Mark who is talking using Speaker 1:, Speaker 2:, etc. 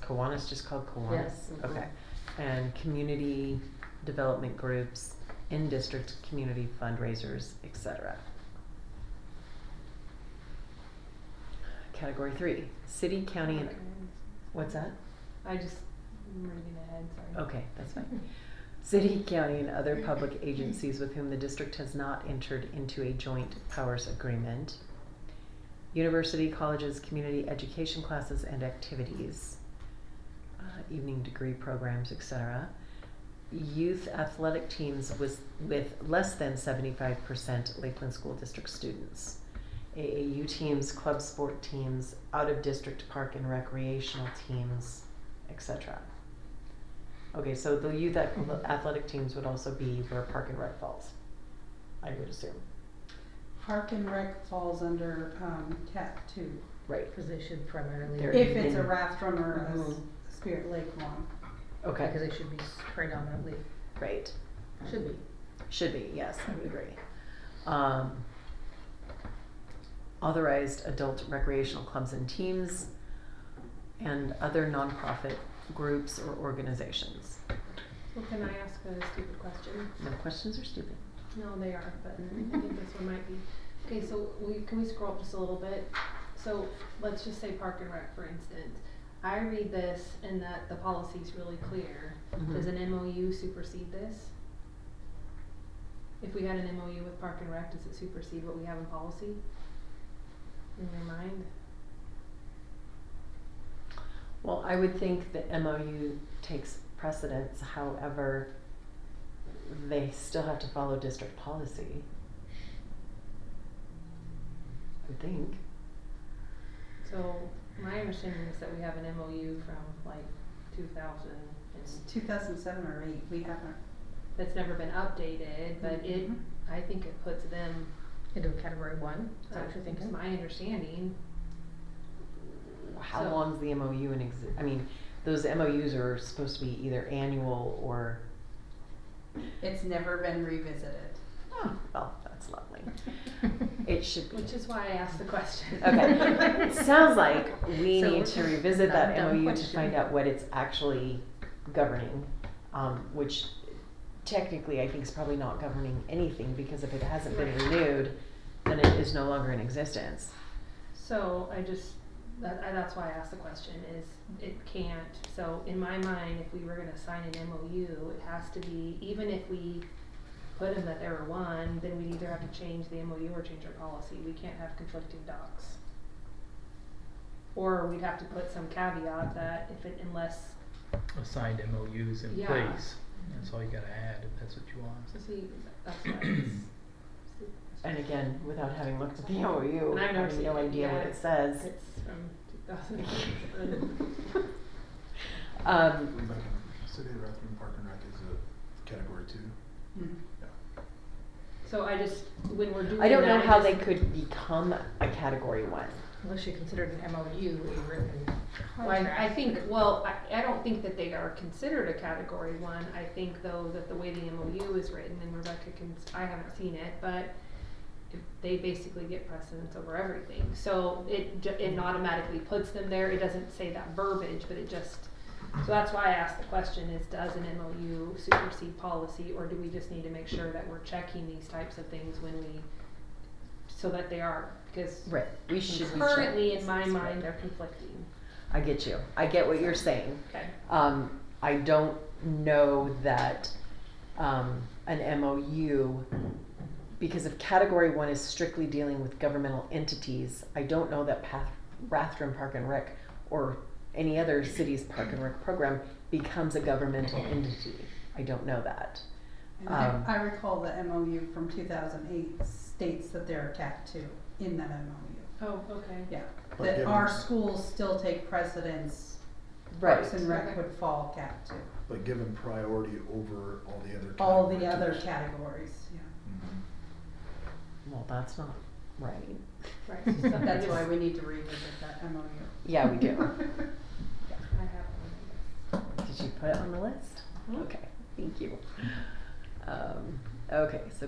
Speaker 1: Kiwanis just called Kiwanis?
Speaker 2: Yes, mhm.
Speaker 1: Okay. And community development groups, in-district community fundraisers, et cetera. Category three, city, county, and, what's that?
Speaker 3: I just, I'm reading ahead, sorry.
Speaker 1: Okay, that's fine. City, county, and other public agencies with whom the district has not entered into a joint powers agreement. University, colleges, community education classes and activities, uh, evening degree programs, etc. Youth athletic teams with, with less than seventy-five percent Lakeland School District students. AAU teams, club sport teams, out-of-district park and recreational teams, etc. Okay, so the youth ath- athletic teams would also be where Park and Rec falls, I would assume.
Speaker 4: Park and Rec falls under, um, cat two,
Speaker 1: Right.
Speaker 2: Because they should primarily.
Speaker 1: They're
Speaker 4: if it's a
Speaker 1: in-
Speaker 4: raft run or a s-
Speaker 5: Oh.
Speaker 2: Mhm.
Speaker 4: Spirit Lake one.
Speaker 2: Because
Speaker 1: Okay.
Speaker 2: they should be predominantly,
Speaker 1: Right.
Speaker 2: should be.
Speaker 1: Should be, yes, I would agree. Um, authorized adult recreational clubs and teams and other nonprofit groups or organizations.
Speaker 3: Well, can I ask a stupid question? Mm-hmm.
Speaker 1: No questions are stupid.
Speaker 3: No, they are, but I think this one might be. Okay, so we, can we scroll up just a little bit? So let's just say Park and Rec, for instance. I read this and that the policy's really clear. Does
Speaker 1: Mhm.
Speaker 3: an MOU supersede this? If we had an MOU with Park and Rec, does it supersede what we have in policy? In your mind?
Speaker 1: Well, I would think the MOU takes precedence, however, they still have to follow district policy. I would think.
Speaker 3: So my understanding is that we have an MOU from like two thousand
Speaker 4: It's
Speaker 3: and
Speaker 4: two thousand seven or eight, we haven't.
Speaker 3: that's never been updated, but
Speaker 1: Mm-hmm.
Speaker 3: it,
Speaker 4: Mhm.
Speaker 3: I think it puts them,
Speaker 2: Into a category one, is that what you're
Speaker 3: that's
Speaker 2: thinking?
Speaker 3: my understanding.
Speaker 1: How
Speaker 3: So-
Speaker 1: long's the MOU in exi- I mean, those MOUs are supposed to be either annual or,
Speaker 4: It's never been revisited.
Speaker 1: oh, well, that's lovely. It should be.
Speaker 3: Which is why I asked the question.
Speaker 1: Okay, sounds like we
Speaker 2: So,
Speaker 1: need to revisit
Speaker 2: not a
Speaker 1: that MOU
Speaker 2: dumb
Speaker 1: to
Speaker 2: question.
Speaker 1: find out what it's actually governing, um, which technically I think is probably not governing anything, because if it hasn't been
Speaker 3: Right.
Speaker 1: renewed, then it is no longer in existence.
Speaker 3: So I just, that, I, that's why I asked the question is it can't, so in my mind, if we were gonna sign an MOU, it has to be, even if we put in that there were one, then we'd either have to change the MOU or change our policy, we can't have conflicting docs. Or we'd have to put some caveat that if it, unless,
Speaker 6: assigned MOUs in
Speaker 3: Yeah.
Speaker 6: place. That's all you gotta add if that's what you want.
Speaker 3: so see, that's why it's,
Speaker 1: And again, without having looked at the MOU,
Speaker 3: And
Speaker 1: I
Speaker 3: I've never
Speaker 1: have
Speaker 3: seen
Speaker 1: no
Speaker 3: it,
Speaker 1: idea what
Speaker 3: yeah.
Speaker 1: it says.
Speaker 3: it's from two thousand and
Speaker 1: Um,
Speaker 5: City of Rathrum Park and Rec is a category two. Hmm.
Speaker 4: Mm.
Speaker 3: So I just, when we're doing
Speaker 1: I don't know
Speaker 3: that, I
Speaker 1: how
Speaker 3: just-
Speaker 1: they could become a category one.
Speaker 2: Unless you considered an MOU a written
Speaker 3: Well, I, I
Speaker 2: contract.
Speaker 3: think, well, I, I don't think that they are considered a category one, I think though that the way the MOU is written, and Rebecca can, I haven't seen it, but if- they basically get precedence over everything, so it ju- it automatically puts them there, it doesn't say that verbiage, but it just, so that's why I asked the question is, does an MOU supersede policy, or do we just need to make sure that we're checking these types of things when we, so that they are, because
Speaker 1: Right. We should be.
Speaker 3: currently in my mind, they're conflicting,
Speaker 1: I get you. I get what you're saying.
Speaker 3: okay?
Speaker 1: Um, I don't know that, um, an MOU, because if category one is strictly dealing with governmental entities, I don't know that Path, Rathdrum Park and Rec or any other city's park and rec program becomes a governmental entity. I don't know that.
Speaker 4: And I,
Speaker 1: Um,
Speaker 4: I recall the MOU from two thousand eight states that they're a cat two in that MOU,
Speaker 3: Oh, okay.
Speaker 4: yeah.
Speaker 5: But
Speaker 4: That
Speaker 5: given-
Speaker 4: our schools still take precedence, Parks and Rec would fall cat two.
Speaker 5: But given priority over all the other Mm-hmm. categories.
Speaker 4: All the other categories, yeah.
Speaker 1: Well, that's not right.
Speaker 3: Right. so I
Speaker 4: That's
Speaker 3: just-
Speaker 4: why we need to revisit that MOU.
Speaker 1: Yeah, we do.
Speaker 3: I have one.
Speaker 1: Did you put it on the list? Okay, thank you. Um, okay, so